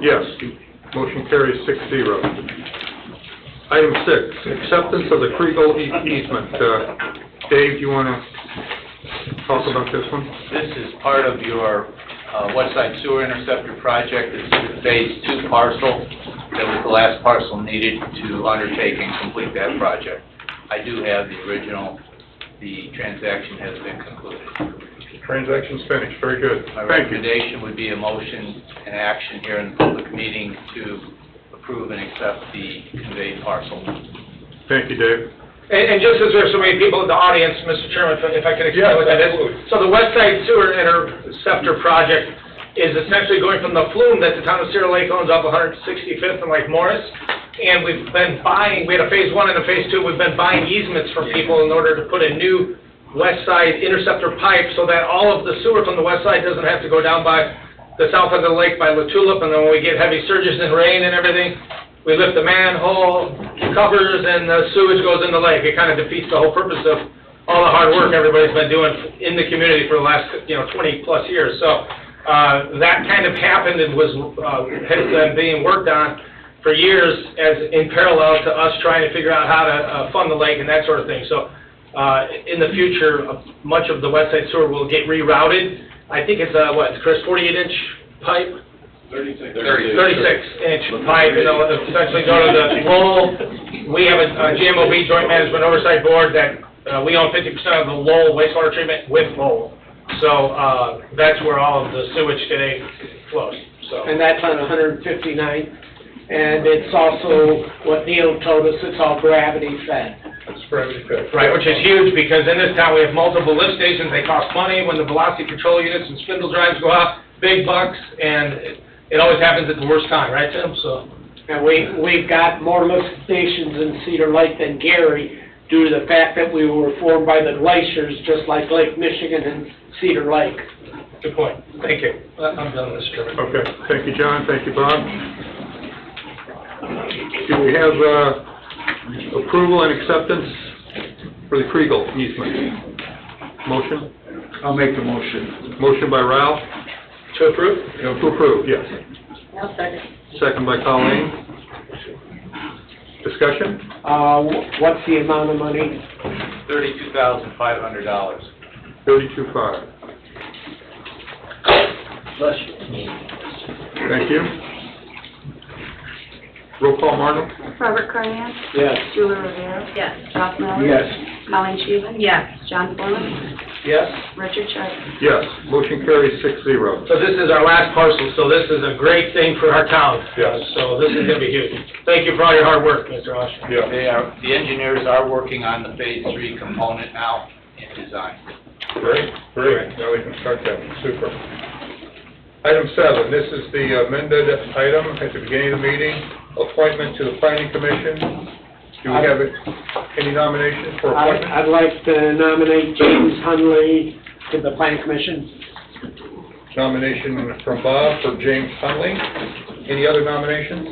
Yes. Motion carries six zero. Item six, acceptance of the Kriegel easement. Uh, Dave, you want to talk about this one? This is part of your uh, West Side Sewer Interceptor project. It's the Phase 2 parcel that was the last parcel needed to undertake and complete that project. I do have the original. The transaction has been concluded. Transaction's finished, very good. My Thank you. recommendation would be a motion and action here in the public meeting to approve and accept the conveyed parcel. Thank you, Dave. And, and just as there's so many people in the audience, Mr. Chairman, if I- if I could Yes, explain what that is. absolutely. So the West Side Sewer Interceptor Project is essentially going from the flume that the town of Cedar Lake owns off 165th and Lake Morris. And we've been buying, we had a phase one and a phase two, we've been buying easements from people in order to put a new West Side Interceptor pipe so that all of the sewer from the west side doesn't have to go down by the south end of the lake by La Tulip. And then when we get heavy surges and rain and everything, we lift the manhole covers and the sewage goes in the lake. It kind of defeats the whole purpose of all the hard work everybody's been doing in the community for the last, you know, 20-plus years. So uh, that kind of happened and was, uh, has been being worked on for years as in parallel to us trying to figure out how to uh, fund the lake and that sort of thing. So uh, in the future, uh, much of the west side sewer will get rerouted. I think it's, uh, what, Chris, 48-inch pipe? 36-inch pipe, you know, essentially go to the Lowell, we have a a GMOB Joint Management Oversight Board that, uh, we own 50% of the Lowell wastewater treatment with Lowell. So, uh, that's where all of the sewage today flows, so. and that's on 159th. And it's also what Neil told us, it's all gravity fed. That's probably good. Right, which is huge, because in this town, we have multiple lift stations, they cost money, when the velocity control units and spindle drives go out, big bucks, and it- it always happens at the worst time, right, Tim? So, And we, we've got more lift stations in Cedar Lake than Gary due to the fact that we were formed by the glaciers, just like Lake Michigan and Cedar Lake. good point, thank you. I- I'm done with this, Chairman. Okay, thank you, John, thank you, Bob. Do we have uh, approval and acceptance for the Kriegel easement? Motion? I'll make the motion. Motion by Ralph, To approve? to approve, yes. I'll second. Second by Colleen. Discussion? Uh, wh- what's the amount of money? $32,500. Thirty-two five. Bless you. Thank you. Roll call, Martin? Robert Carnahan? Yes. Julie Rivera? Yes. Ralph Miller? Yes. Colin Sheehan? Yes. John Foreman? Yes. Richard Sharp? Yes, motion carries six zero. So this is our last parcel, so this is a great thing for our town. Yes. So this is gonna be huge. Thank you for all your hard work, Mr. Oshner. Yeah. They are, the engineers are working on the Phase 3 component now in design. Great, great, now we can start that, super. Item seven, this is the amended item at the beginning of the meeting, appointment to the planning commission. Do we have any nominations for I'd, appointment? I'd like to nominate James Hunley to the Plan Commission. Nomination from Bob for James Hunley. Any other nominations?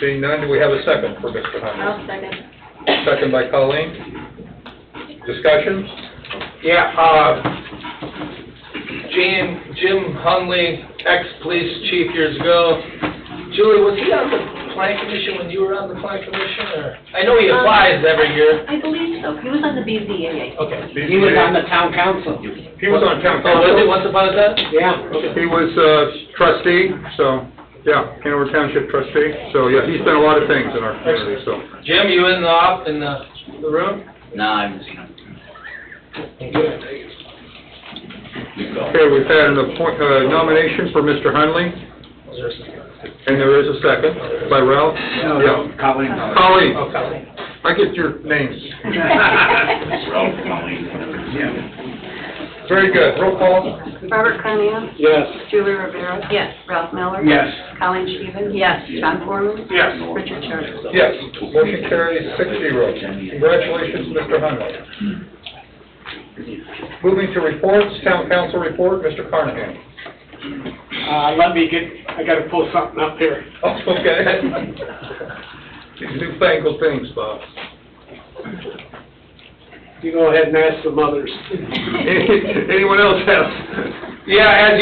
Seeing none, do we have a second for Mr. Hunley? I'll second. Second by Colleen. Discussion? Yeah, uh, Jim, Jim Hunley, ex-police chief years ago. Julie, was he on the plan commission when you were on the plan commission, or? I know he applies every year. Um, I believe so. He was on the BZA. Okay. He was on the town council. He was on town Oh, was council. he once upon a time? Yeah. He was uh, trustee, so, yeah, Hanover Township trustee, so, yeah, he's done a lot of things in our community, so. Jim, you in the, op- in the, the room? No, I haven't seen them. Okay, we've had an appoint, uh, nomination for Mr. Hunley, Was there a second? and there is a second by Ralph. No, no, Oh, Colleen. Yeah. Colleen, Oh, Colleen. I get your names. Yeah. Very good, roll call. Robert Carnahan? Yes. Julie Rivera? Yes. Ralph Miller? Yes. Colin Sheehan? Yes. John Foreman? Yes. Richard Sharp? Yes, motion carries six zero. Congratulations, Mr. Hunley. Moving to reports, town council report, Mr. Carnahan. Uh, let me get, I gotta pull something up here. Oh, okay. These newfangled things, Bob. You go ahead and ask the mothers. Anyone else have Yeah, as